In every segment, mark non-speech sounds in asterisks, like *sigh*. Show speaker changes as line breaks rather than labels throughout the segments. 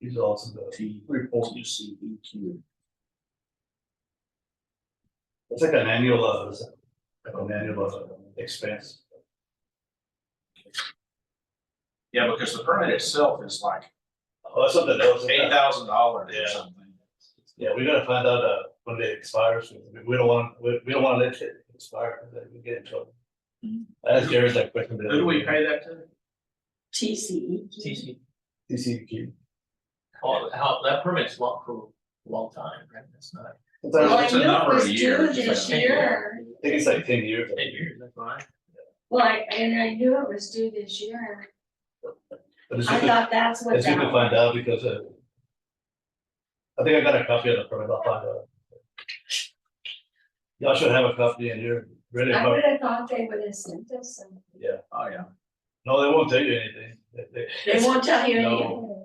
These are also the
T
report.
T C E Q.
It's like an annual, uh, it's like an annual uh, expense.
Yeah, because the permit itself is like
Oh, that's something that was.
eight thousand dollars or
Yeah.
something.
Yeah, we gotta find out, uh, when it expires. We- We don't want, we, we don't wanna let it expire, 'cause then we get in trouble.
Mm-hmm.
Mhm.
I asked Jerry that question.
Who do we pay that to?
TCE.
E
TC,
TCEQ.
oh, how, that permit's long for a long time, right, that's not,
Sometimes
Well, I
I
it's a
knew it
number of
was due
years,
this
so-
year.
think it's like ten years.
ten years, that's fine.
Well, I, and I knew it was due this year.
But it's
I
good to,
thought that's what
it's good
that
to find out because, uh, I think I got a copy of the permit, I'll find out. Y'all should have a copy in here, ready,
I would have thought they would have sent us some.
yeah,
Oh, yeah.
no, they won't tell you anything, They- they-
They won't tell you
No.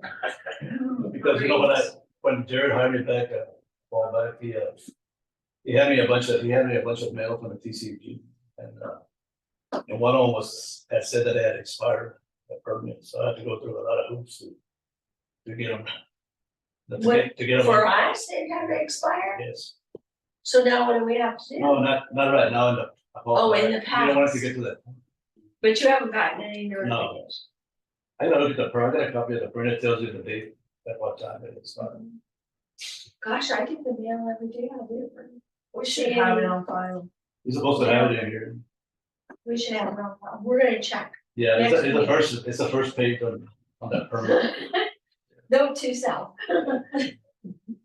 *laughs*
anything.
Because you know, when I, when Jared hired me back uh, a while back, he, uh, he had me a bunch of, he had me a bunch of mail from the TCP and, uh, and one of them was, had said that it had expired, the permit, so I had to go through a lot of hoops to, to get them. To get, to get
For
them,
us, it had to expire,
yes,
so now what do we have to do?
no, not, not right now in the.
Oh, in the
You don't want to
past.
get to that,
But you haven't gotten any
no.
notifications.
I gotta look at the permit, I got a copy of the permit, tells you the date, at what time it expired.
Gosh, I get the mail every day, I do. We should
should
have it on,
on file.
You're supposed to have it in here,
we should have it on, file. we're gonna check,
yeah, it's,
Next
a- it's the
week.
first, it's the first page on, on that permit.
no to sell.
It'll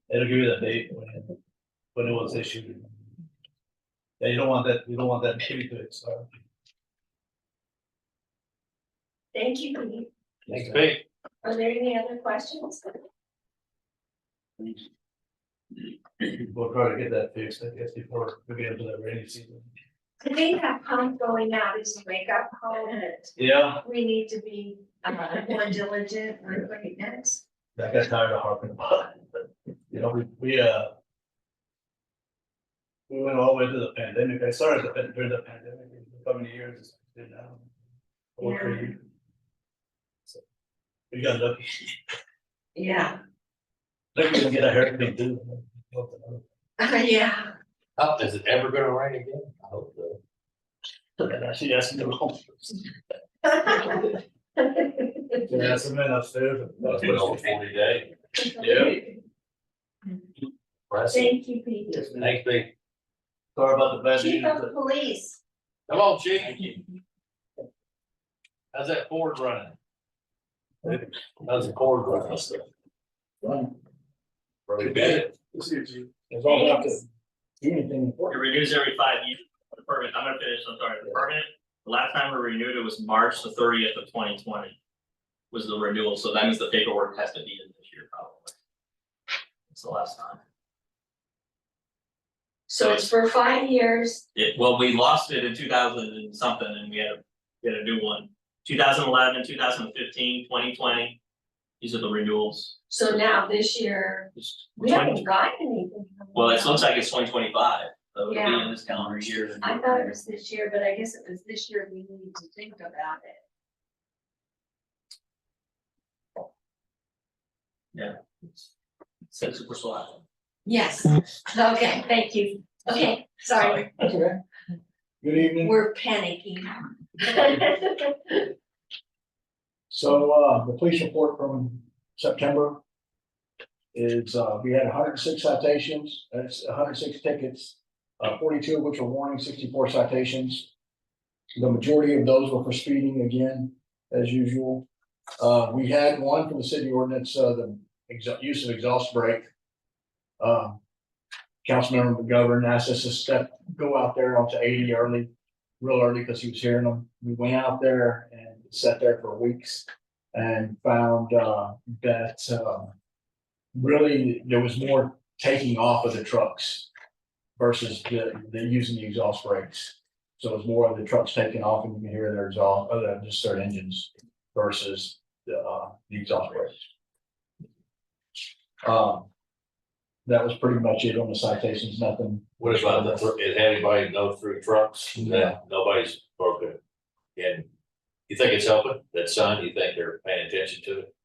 give you the date when, it- when it was issued. Yeah, you don't want that, you don't want that *laughs* baby to expire.
Thank you, Pete.
Next page,
Are there any other questions?
We'll try to get that fixed, I guess, before we get into the rainy season.
I think that pump going out is a wake-up call that
Yeah,
we need to be uh, more diligent with what it is.
I got tired of harping about it, but, you know, we, we, uh. We went all the way to the pandemic, I started the pan- during the pandemic, and how many years it's been now? Over three
Yeah.
years. So, We got lucky, *laughs*
Yeah,
lucky we didn't get a hurricane too.
*laughs* yeah.
oh, is it ever gonna rain again? I hope so.
And I should ask him to go.
Yeah.
Yeah, some men upstairs.
That's been over forty days. Impressive.
Thank you, Pete.
Next page,
Sorry about the bad news.
Chief of Police,
come on, chief. How's that Ford running? How's the Ford running? Really good.
It's all about the- Anything.
It renews every five years, the permit, I'm gonna finish, I'm sorry, the permit, the last time we renewed it was March the thirtieth of twenty twenty. Was the renewal, so that means the paperwork has to be in this year probably. It's the last time,
so it's for five years,
it, well, we lost it in two thousand and something and we had to get a new one. 2011, 2015, 2020. these are the renewals,
so now this year,
It's
we
20
haven't gotten anything. from
well, it
them.
looks like it's twenty twenty five, so it'll be
Yeah.
in this calendar year.
I thought it was this year, but I guess it was this year we need to think about it.
Since we're still out.
Yes, okay, thank you. Okay, sorry,
Good evening.
we're panicking.
So, uh, the police report from September is, uh, we had hundred and six citations, that's hundred and six tickets, uh, forty-two of which were warning, sixty-four citations. The majority of those were for speeding again, as usual. Uh, we had one from the city ordinance, uh, the exa- use of exhaust brake. Uh, Councilmember McGovern asked us to step, go out there onto eighty early, real early, because he was hearing them. We went out there and sat there for weeks and found uh that um. Really, there was more taking off of the trucks versus the the using the exhaust brakes. So it was more of the trucks taking off and you can hear their exhaust, other than just their engines versus the uh the exhaust brakes. Um. That was pretty much it on the citations, nothing.
What about the, thr- is anybody know through trucks? No, Nobody's broken. And you think it's helping, that sign, you think they're paying attention to it?